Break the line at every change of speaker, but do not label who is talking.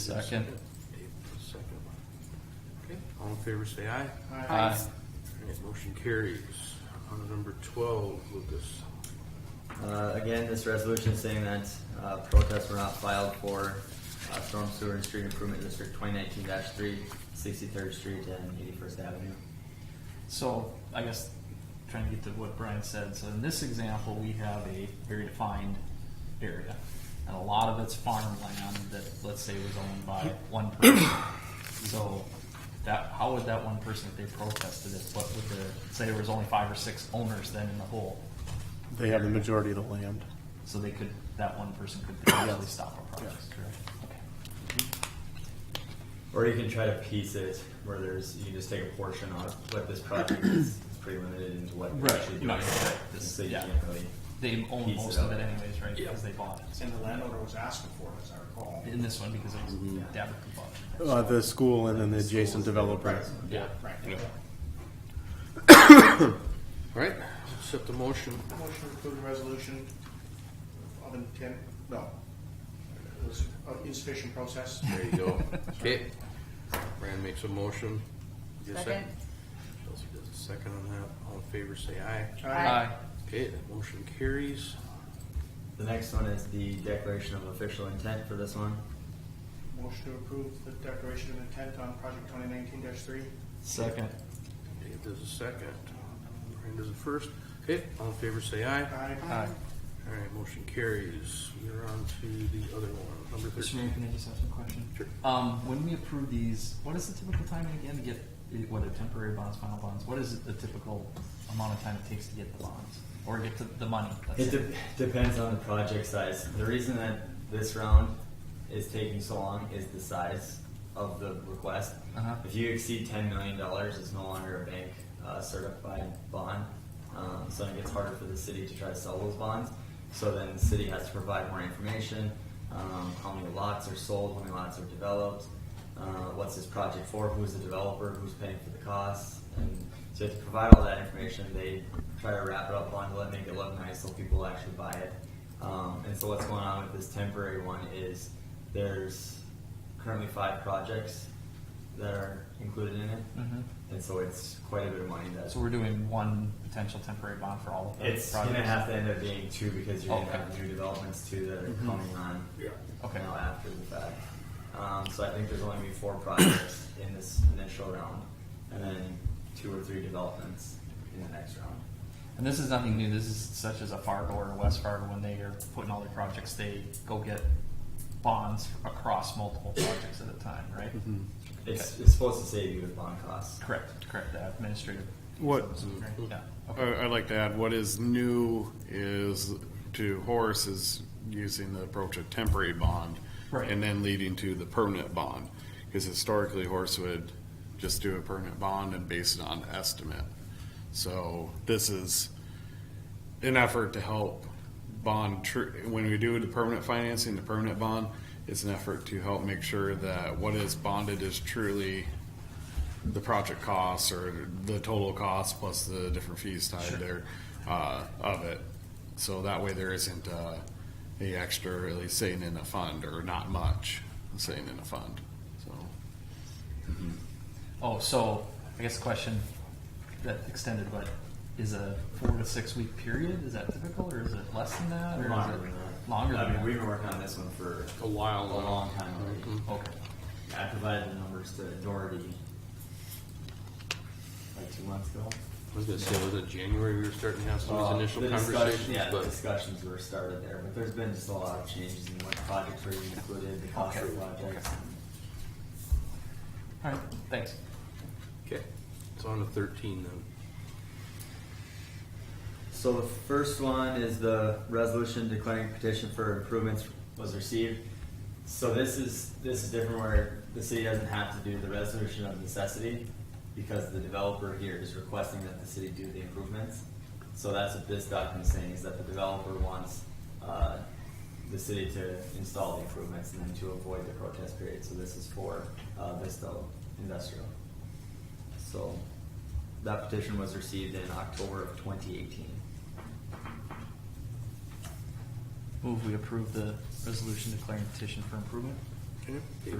Second.
April second. Okay, all in favor, say aye.
Aye.
All right, motion carries. On number twelve, Lucas.
Uh, Again, this resolution is saying that uh, protests were not filed for uh, storm sewer and street improvement district twenty nineteen 3 63rd street and eighty-first avenue.
So I guess trying to get to what Brian said, so in this example, we have a very defined area. And a lot of it's farmland that, let's say, was owned by one person. So that, how would that one person, if they protested it, what would the, say there was only five or six owners then in the whole?
They have the majority of the land.
So they could, that one person could potentially stop a project, correct?
Or you can try to piece it where there's, you can just take a portion of what this project is, it's pretty limited into what
Right,
they're actually
you might
doing.
say
And
this-
So you
yeah.
can't really,
They own
Piece it
most of
out.
it anyways, right, because they bought it,
And the landowner was asking for it, as I recall.
in this one, because it was
Mm-hmm.
Dabber who bought it.
Uh, the school and then the adjacent developer.
Yeah.
Right.
All right, accept the motion.
Motion to approve the resolution of intent, no. It was of insufficient process.
There you go. Okay. Rand makes a motion. Is there a
Second.
Chelsea does a second on that. All in favor, say aye.
Aye.
Okay, that motion carries.
the next one is the declaration of official intent for this one.
Motion to approve the declaration of intent on project twenty nineteen three.
Second.
Dave does a second. Rand does a first. Okay, all in favor, say aye.
Aye.
Aye.
All right, motion carries. We're on to the other one, number
Mr. Mayor,
thirteen.
can I just ask a question?
Sure.
Um, when we approve these, what is the typical timing again to get, i- what are temporary bonds, final bonds? What is the typical amount of time it takes to get the bonds or get the, the money? That's
It de- depends on the project size. The reason that this round is taking so long is the size of the request.
Uh-huh.
If you exceed ten million dollars, it's no longer a bank uh, certified bond. Um, so it gets harder for the city to try to sell those bonds. So then the city has to provide more information, um, how many lots are sold, how many lots are developed, uh, what's this project for, who's the developer, who's paying for the costs, and so you have to provide all that information. They try to wrap it up, bundle it, make it look nice so people actually buy it. Um, and so what's going on with this temporary one is there's currently five projects that are included in it.
Mhm.
And so it's quite a bit of money that
So we're doing one potential temporary bond for all of the
it's
projects?
going to have to end up being two because you're going
Okay. Mm-hmm.
to have new developments too that are coming on
Yeah.
Okay.
now after the fact. Um, so I think there's only going to be four projects in this initial round, and then two or three developments in the next round.
And this is nothing new, this is such as a Fargo or a West Fargo, when they are putting all their projects, they go get bonds across multiple projects at a time, right?
Mm-hmm. It's, it's supposed to save you with bond costs.
Correct, correct, the administrative,
What,
right, yeah, okay.
I- I'd like to add, what is new is to Horace is using the approach of temporary bond.
Right.
And then leading to the permanent bond, because historically Horace would just do a permanent bond and base it on estimate. So this is an effort to help bond, tr- when we do the permanent financing, the permanent bond, it's an effort to help make sure that what is bonded is truly the project costs or the total cost plus the different fees tied there, uh, of it. So that way there isn't, uh, a extra really sitting in a fund or not much sitting in a fund, so.
Oh, so I guess the question that extended, but is a four to six week period, is that typical or is it less than that? or is
Longer
it
than that.
Longer than
I mean,
that? Mm-hmm.
we've been working on this one for
A while.
a long time already.
Okay,
I provided the numbers to Doherty like two months ago.
I was gonna say, was it January we were starting to have some
Uh,
of these
the
initial
discussion-
conversations?
Yeah, the
But
discussions were started there, but there's been just a lot of changes in what projects were included, the cost
Okay.
of projects.
all right, thanks.
Okay, it's on to thirteen then.
So the first one is the resolution declaring petition for improvements was received. So this is, this is different where the city doesn't have to do the resolution of necessity because the developer here is requesting that the city do the improvements. So that's what this document is saying, is that the developer wants, uh, the city to install the improvements and then to avoid the protest period. So this is for, uh, Vista Industrial. So that petition was received in October of twenty eighteen.
Move we approve the resolution declaring petition for improvement?
Okay.